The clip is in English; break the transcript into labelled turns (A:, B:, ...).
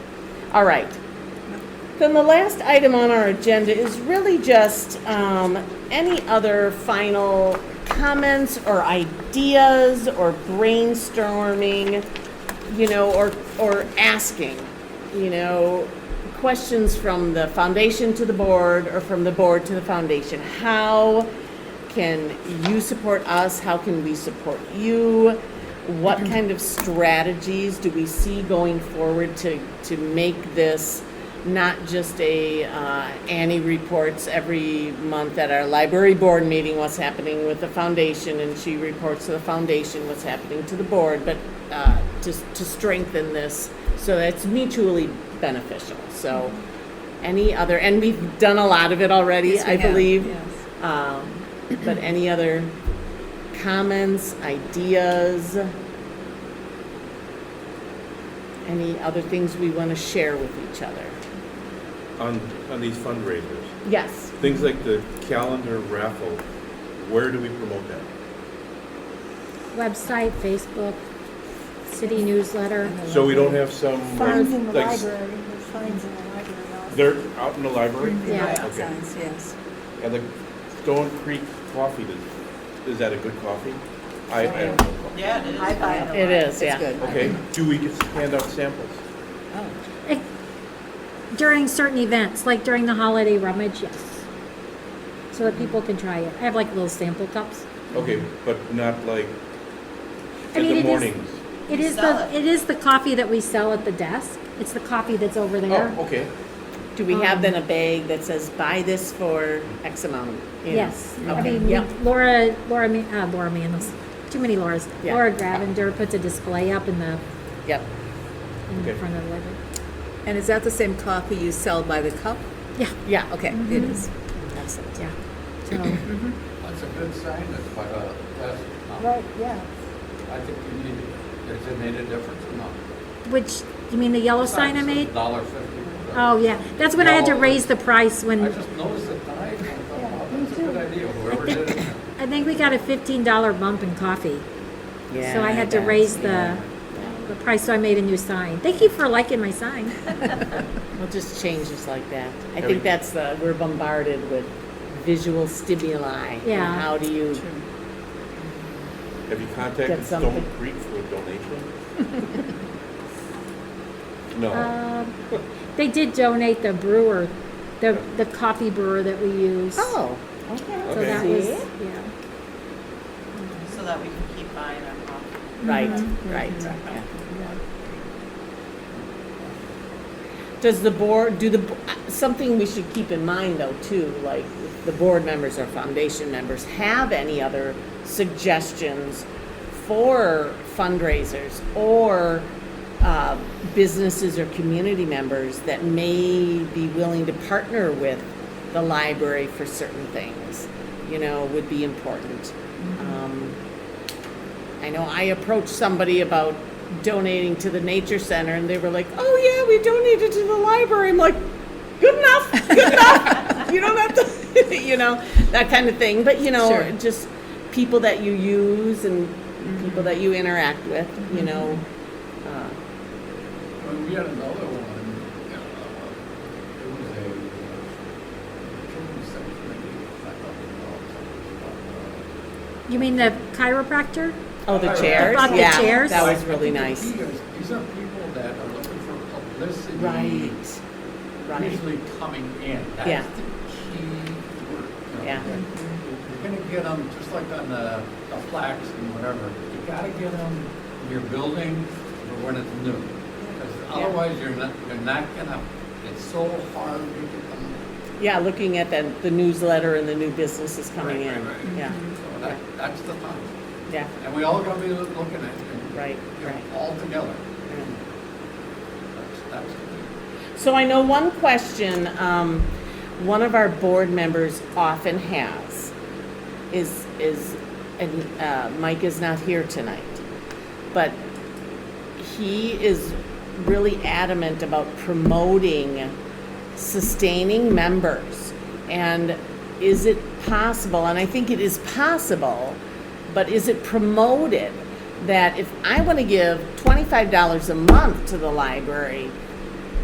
A: All right. Then the last item on our agenda is really just um, any other final comments or ideas or brainstorming, you know, or, or asking, you know, questions from the foundation to the board or from the board to the foundation. How can you support us? How can we support you? What kind of strategies do we see going forward to, to make this not just a, uh, Annie reports every month at our library board meeting what's happening with the foundation, and she reports to the foundation what's happening to the board, but, uh, to, to strengthen this, so that it's mutually beneficial, so. Any other, and we've done a lot of it already,
B: Yes, we
A: I
B: have,
A: believe.
B: yes.
A: Um, But any other comments, ideas? Any other things we want to share with each other?
C: on, on these fundraisers,
A: Yes.
C: things like the calendar raffle, where do we promote that?
D: Website, Facebook, city newsletter.
C: So we don't have some, uh,
E: Signs in the
C: like,
E: library, there's signs in the library also.
C: they're out in the library?
D: Yeah.
B: Right,
C: Okay.
B: signs, yes.
C: And the Stone Creek Coffee, does- is that a good coffee? I, I don't know.
F: Yeah, it is.
B: I buy them.
A: It is, yeah.
B: It's good.
C: Okay, do we just hand out samples?
B: Oh,
D: Eh, During certain events, like during the holiday rummage, yes. So that people can try it. I have like little sample cups.
C: Okay, but not like
D: I
C: in
D: mean, it
C: the
D: is-
C: mornings?
D: It
F: You
D: is
F: sell
D: the,
F: it.
D: it is the coffee that we sell at the desk. It's the coffee that's over there.
C: Oh, okay,
A: Do we have
D: Um,
A: then a bag that says, buy this for X amount? you know?
D: Yes. I
A: Okay,
D: mean,
A: yep.
D: Laura, Laura, Ma- uh, Laura Manos, too many Lauras.
A: Yeah.
D: Laura Gravender puts a display up in the,
A: Yep.
D: in
C: Okay.
D: front of the library.
B: and is that the same coffee you sell by the cup?
D: Yeah,
A: Yeah.
B: Okay, it
A: Mm-hmm.
B: is.
A: Excellent.
D: yeah. So,
G: That's a good sign, that's quite a, that's,
E: Right, yeah.
G: I think you need, has it made a difference or not?
D: which, you mean the yellow sign I
G: Signs,
D: made?
G: Dollar fifty. whatever.
D: Oh, yeah. That's when I had to
G: No.
D: raise the price
G: I
D: when,
G: just noticed the time, I thought, wow,
E: me
G: that's a good idea, whoever did it.
D: I think we got a fifteen dollar bump in coffee.
A: Yeah,
D: So I had to
A: that's-
D: raise the, the price, so I made a new sign. Thank you for liking my sign.
A: We'll just change this like that. I
C: Have
A: think
C: you-
A: that's the, we're bombarded with visual stimuli. and
D: Yeah.
A: How do you
C: have you contacted
A: Get something.
C: Stone Creek for a donation? No,
D: Um, They did donate the brewer, the, the coffee brewer that we use.
A: Oh, okay.
D: So
C: Okay.
D: that was,
A: See?
D: yeah.
F: So that we can keep buying our coffee.
A: Right, right. yeah. Does the board, do the, b- uh, something we should keep in mind though too, like if the board members or foundation members have any other suggestions for fundraisers or uh, businesses or community members that may be willing to partner with the library for certain things, you know, would be important. Um, I know I approached somebody about donating to the nature center and they were like, "Oh yeah, we donated to the library." I'm like, "Good enough. Good enough. you don't have to, you know, that kind of thing." But, you know,
B: Sure.
A: just people that you use and people that you interact with, you know. Uh,
G: When we had another one, uh, it was a uh, children's section, maybe, I thought, you know,
D: You mean the chiropractor?
A: oh, the
G: uh, I
A: chairs.
D: brought the
A: yeah.
D: chairs.
A: That was
G: I
A: really
G: think
A: nice.
G: These are- these are people that are looking for publicity.
A: Right. Right.
G: usually coming in.
A: Yeah.
G: That's the key word. you know.
A: Yeah.
G: You're gonna get them, just like on the, the flax and whatever, you gotta get them in your building or when it's new. Because otherwise, you're not, you're not gonna, it's so hard to get them.
A: Yeah, looking at the, the newsletter and the new businesses coming
G: Right,
A: in.
G: right, right.
A: Yeah.
G: So that, that's the time.
A: Yeah.
G: And we all gonna be loo- looking at it.
A: Right,
G: you know,
A: right.
G: All together.
A: yeah.
G: That's, that's the key.
A: So I know one question um, one of our board members often has is is and uh, Mike is not here tonight, but he is really adamant about promoting sustaining members and is it possible and i think it is possible but is it promoted that if i want to give $25 a month to the library